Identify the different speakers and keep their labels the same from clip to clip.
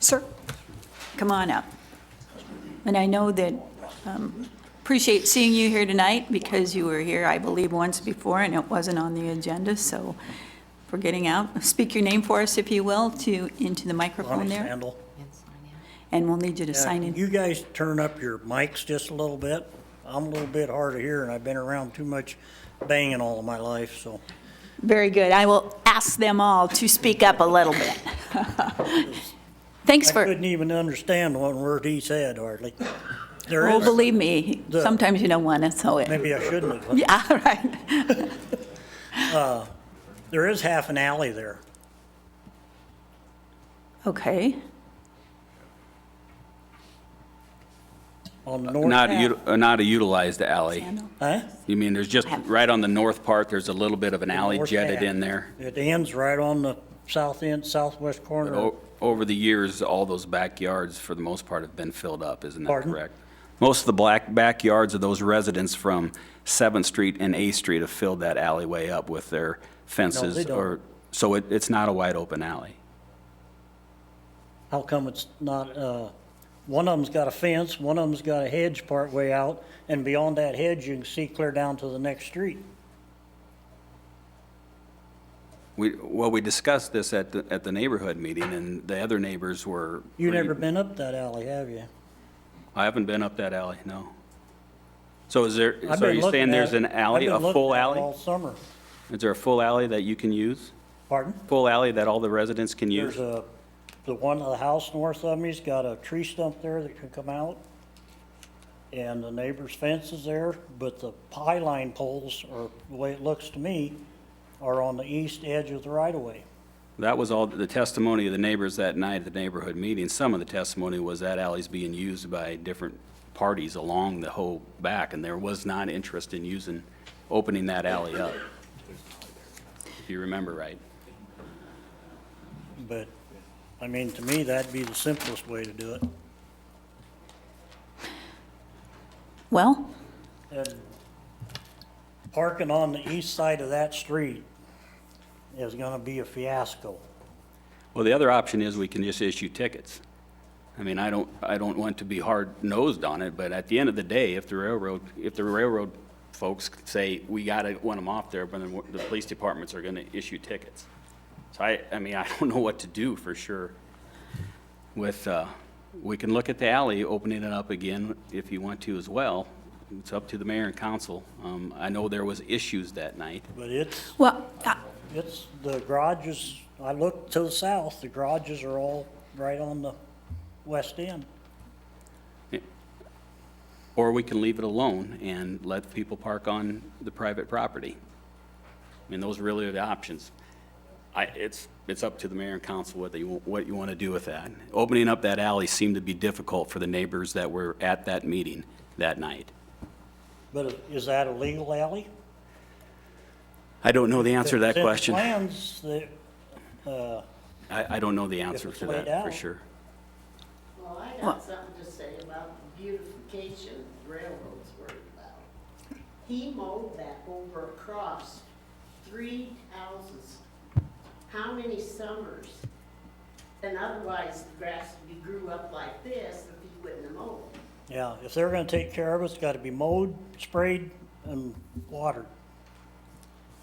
Speaker 1: Sir, come on up. And I know that, um, appreciate seeing you here tonight because you were here, I believe, once before and it wasn't on the agenda, so for getting out, speak your name for us, if you will, to, into the microphone
Speaker 2: Ronnie
Speaker 1: there.
Speaker 2: Sandel.
Speaker 1: And we'll need you to sign in.
Speaker 2: You guys turn up your mics just a little bit. I'm a little bit hard of hearing. I've been around too much banging all of my life, so
Speaker 1: Very good. I will ask them all to speak up a little bit. Thanks
Speaker 2: I
Speaker 1: for,
Speaker 2: couldn't even understand one word he said hardly. There
Speaker 1: oh,
Speaker 2: is,
Speaker 1: believe me,
Speaker 2: The-
Speaker 1: sometimes you don't want to, so it,
Speaker 2: maybe I shouldn't have.
Speaker 1: yeah, right.
Speaker 2: There is half an alley there.
Speaker 1: Okay,
Speaker 2: On the north.
Speaker 3: Not, a ut- uh, not a utilized alley.
Speaker 1: Sandal.
Speaker 2: Huh?
Speaker 3: You mean, there's just, right on the north part, there's a little bit of an alley
Speaker 2: North
Speaker 3: jetted
Speaker 2: half.
Speaker 3: in there.
Speaker 2: It ends right on the south end, southwest corner.
Speaker 3: O- Over the years, all those backyards, for the most part, have been filled up, isn't that
Speaker 2: Pardon?
Speaker 3: correct? Most of the black backyards of those residents from Seventh Street and Eighth Street have filled that alleyway up with their fences
Speaker 2: don't.
Speaker 3: or, so it, it's not a wide open alley.
Speaker 2: How come it's not, uh, one of them's got a fence, one of them's got a hedge part way out, and beyond that hedge, you can see clear down to the next street.
Speaker 3: We, well, we discussed this at, the- at the neighborhood meeting and the other neighbors were.
Speaker 2: you
Speaker 3: re-
Speaker 2: never been up that alley, have you?
Speaker 3: I haven't been up that alley, no. So is there,
Speaker 2: I've
Speaker 3: so are
Speaker 2: been
Speaker 3: you
Speaker 2: looking
Speaker 3: saying there's
Speaker 2: at it.
Speaker 3: an alley,
Speaker 2: I've
Speaker 3: a
Speaker 2: been
Speaker 3: full
Speaker 2: looking at it
Speaker 3: alley?
Speaker 2: All summer.
Speaker 3: Is there a full alley that you can use?
Speaker 2: Pardon?
Speaker 3: Full alley that all the residents can use?
Speaker 2: There's a, the one, the house north of me's got a tree stump there that can come out. And the neighbor's fence is there, but the pie line poles, or the way it looks to me, are on the east edge of the right of way.
Speaker 3: That was all the testimony of the neighbors that night at the neighborhood meeting. Some of the testimony was that alley's being used by different parties along the whole back, and there was not interest in using, opening that alley up. If you remember right.
Speaker 2: But, I mean, to me, that'd be the simplest way to do it.
Speaker 1: Well,
Speaker 2: And parking on the east side of that street is gonna be a fiasco.
Speaker 3: Well, the other option is we can just issue tickets. I mean, I don't, I don't want to be hard-nosed on it, but at the end of the day, if the railroad, if the railroad folks say, we gotta want them off there, but then the police departments are gonna issue tickets. So I, I mean, I don't know what to do for sure with, uh, we can look at the alley, opening it up again if you want to as well. It's up to the mayor and council. Um, I know there was issues that night.
Speaker 2: But it's,
Speaker 1: well, uh,
Speaker 2: it's, the garages, I looked to the south, the garages are all right on the west end.
Speaker 3: Or we can leave it alone and let people park on the private property. I mean, those really are the options. I, it's, it's up to the mayor and council whether you, what you want to do with that. Opening up that alley seemed to be difficult for the neighbors that were at that meeting that night.
Speaker 2: But is that a legal alley?
Speaker 3: I don't know the answer to that question. I,
Speaker 2: Since plans, that, uh,
Speaker 3: I don't know the answer
Speaker 2: it's
Speaker 3: to
Speaker 2: laid
Speaker 3: that, for
Speaker 2: out.
Speaker 3: sure.
Speaker 4: Well, I got something to say about the beautification railroads worried about. He mowed that over across three houses. How many summers? And otherwise, the grass would be grew up like this if he wouldn't have mowed.
Speaker 2: yeah, if they're gonna take care of it, it's gotta be mowed, sprayed, and watered.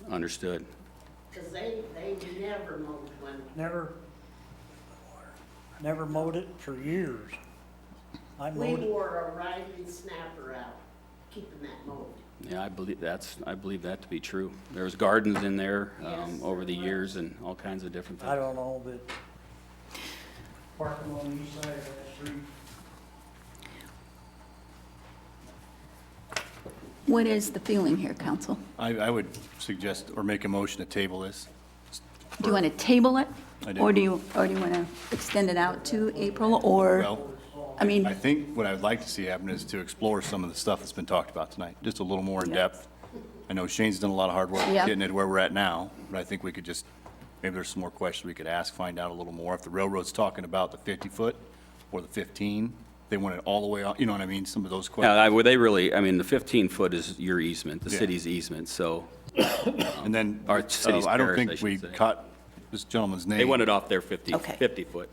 Speaker 3: Understood.
Speaker 4: Because they, they never mowed one.
Speaker 2: Never, never mowed it for years. I
Speaker 4: We
Speaker 2: mowed it.
Speaker 4: wore a riding snapper out, keeping that mowed.
Speaker 3: Yeah, I believe that's, I believe that to be true. There was gardens in there, um,
Speaker 4: Yes,
Speaker 3: over the
Speaker 4: there was.
Speaker 3: years and all kinds of different
Speaker 2: I
Speaker 3: things.
Speaker 2: don't know, but parking on the east side of that street.
Speaker 1: what is the feeling here, council?
Speaker 5: I, I would suggest or make a motion to table this.
Speaker 1: Do you want to table it?
Speaker 5: I do.
Speaker 1: Or do you, or do you want to extend it out to April, or,
Speaker 5: Well,
Speaker 1: I mean,
Speaker 5: I think what I would like to see happen is to explore some of the stuff that's been talked about tonight, just a little more in depth. I know Shane's done a lot of hard work
Speaker 1: Yeah.
Speaker 5: getting it where we're at now, but I think we could just, maybe there's some more questions we could ask, find out a little more. If the railroad's talking about the 50-foot or the 15, they want it all the way out, you know what I mean? Some of those
Speaker 3: Yeah,
Speaker 5: questions.
Speaker 3: I- well, they really, I mean, the 15-foot is your easement, the
Speaker 5: Yeah.
Speaker 3: city's easement, so
Speaker 5: And then,
Speaker 3: Our
Speaker 5: uh,
Speaker 3: city's
Speaker 5: I don't
Speaker 3: parish, I
Speaker 5: think
Speaker 3: should
Speaker 5: we
Speaker 3: say.
Speaker 5: caught this gentleman's name.
Speaker 3: they want it off their 50,
Speaker 1: Okay.
Speaker 3: 50-foot.